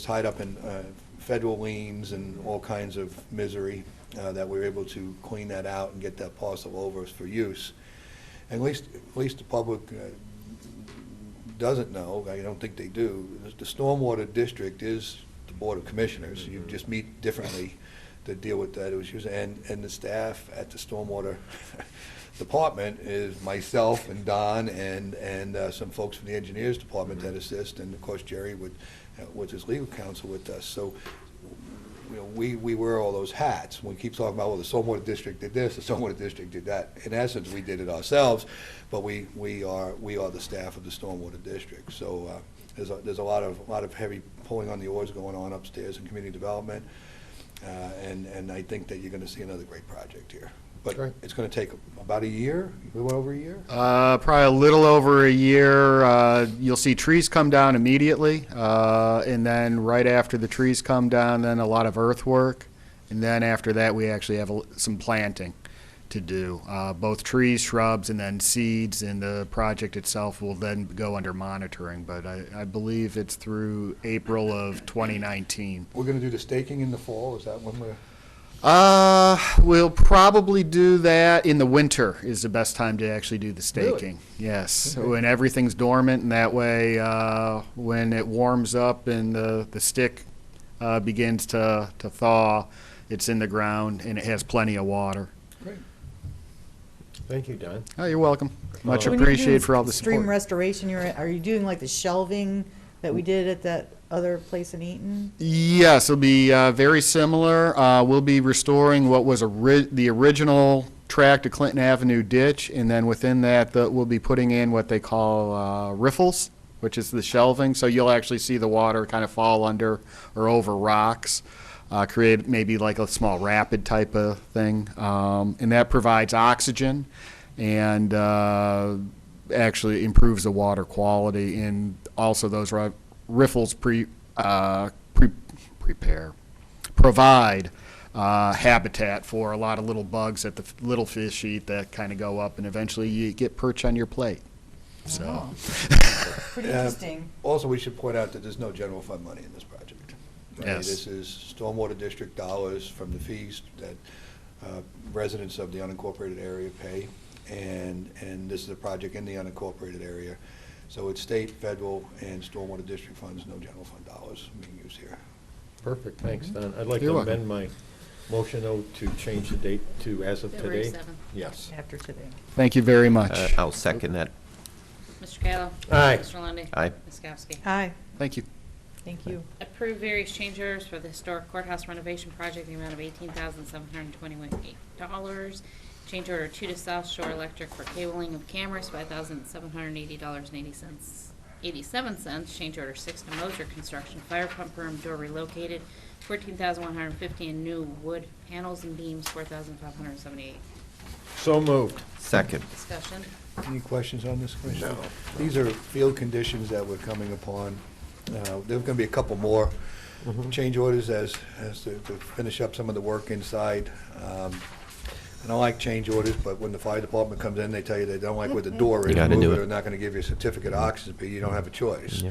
tied up in uh, federal liens and all kinds of misery, uh, that we were able to clean that out and get that parcel over for use. And at least, at least the public uh, doesn't know, I don't think they do, the Stormwater District is the Board of Commissioners. You just meet differently to deal with that issues. And, and the staff at the Stormwater Department is myself and Don and, and uh, some folks from the Engineers Department that assist, and of course Jerry with, uh, with his legal counsel with us. So, you know, we, we wear all those hats. We keep talking about, well, the Stormwater District did this, the Stormwater District did that. In essence, we did it ourselves, but we, we are, we are the staff of the Stormwater District. So, uh, there's, a- there's a lot of, a lot of heavy pulling on the oars going on upstairs in community development. Uh, And, and I think that you're going to see another great project here. But Great. it's going to take about a year, a little over a year? Uh, probably a little over a year. Uh, you'll see trees come down immediately, uh, and then right after the trees come down, then a lot of earthwork, and then after that, we actually have a l some planting to do, uh, both trees, shrubs, and then seeds. And the project itself will then go under monitoring, but I, I believe it's through April of 2019. We're going to do the staking in the fall, is that when we're? Uh, we'll probably do that in the winter is the best time to actually do the Really? staking. Yes, when everything's dormant, and that way, uh, when it warms up and the the stick uh, begins to to thaw, it's in the ground and it has plenty of water. Great. Thank you, Don. Oh, you're welcome. Much Uh, When you're doing appreciated for all the Stream support. restoration, you're, are you doing like the shelving that we did at that other place in Eaton? Yes, it'll be uh, very similar. Uh, we'll be restoring what was ori- the original tract of Clinton Avenue ditch, and then within that, the, we'll be putting in what they call uh, riffles, which is the shelving. So you'll actually see the water kind of fall under or over rocks, uh, create maybe like a small rapid type of thing, um, and that provides oxygen and uh, actually improves the water quality. And also, those ri- riffles pre, uh, pre- prepare, provide uh, habitat for a lot of little bugs that the f- little fish eat that kind of go up, and eventually you get perch on your plate. So, Oh. Pretty Yeah. interesting. Also, we should point out that there's no general fund money in this project. right? Yes. This is stormwater district dollars from the fees that uh, residents of the unincorporated area pay, and, and this is a project in the unincorporated area. So it's state, federal, and stormwater district funds, no general fund dollars being used here. Perfect, thanks, Don. I'd like Mm-hmm. to You're welcome. amend my motion though, to change the date to as of February today. 7th. Yes. After today. thank you very much. Uh, I'll second that. Mr. Kayla. Aye. Mr. Lundey. Aye. Ms. Kowski. Aye, Thank you. thank you. Approve various change orders for the historic courthouse renovation project in the amount of $18,721. Change order two to South Shore Electric for cabling of cameras, $5,780.80. 87 cents. Change order six to Moser Construction fire pump room door relocated, 14150 And new wood panels and beams, 4578 So moved. Second. Discussion. Any questions on this, Commissioner? These are field conditions that we're coming upon. Uh, There's going to be a couple more Mm-hmm. change orders as, as to to finish up some of the work inside. Um, And I like change orders, but when the fire department comes in, they tell you they don't like where the door is. You gotta move do or it. They're not going to give you a certificate of occupancy, you don't have a choice.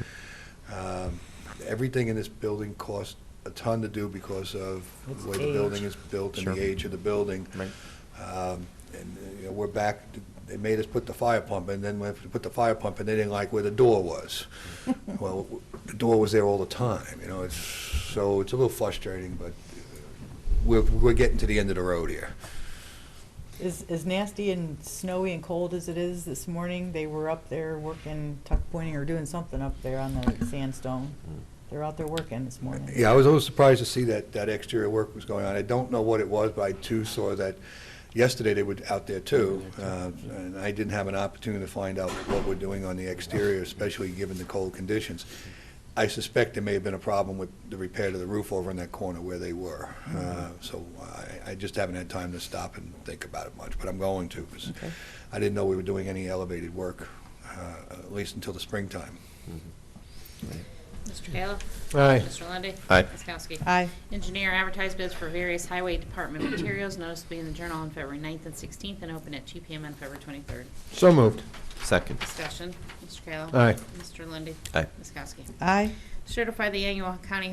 Um, Everything in this building costs a ton to do because of the way the building is built and the Sure. age of the building. Right. Um, And, uh, you know, we're back, they made us put the fire pump, and then we have to put the fire pump, and they didn't like where the door was. Well, w- the door was there all the time, you know, it's, so it's a little frustrating, but uh, we're, we're getting to the end of the road here. As, as nasty and snowy and cold as it is this morning, they were up there working, tuck pointing or doing something up there on the sandstone. They're out there working this morning. Mm. Yeah, I was a little surprised to see that, that exterior work was going on. I don't know what it was, but I too saw that yesterday they were out there too. uh, And I didn't have an opportunity to find out what we're doing on the exterior, especially given the cold conditions. I suspect there may have been a problem with the repair to the roof over in that corner where they were. Uh, So I, I just haven't had time to stop and think about it much, but I'm going to, because I didn't know we were doing any elevated work, uh, at least until the springtime. Mr. Kayla. Aye. Mr. Lundey. Aye. Ms. Kowski. Aye, Engineer advertised bids for various highway department materials, notice to be in the Journal on February 9th and 16th, and open at 2 PM on February 23rd. So moved. Second. Discussion, Mr. Kayla. Aye. Mr. Lundy, Aye. Ms. Kowski. aye. Certify the annual county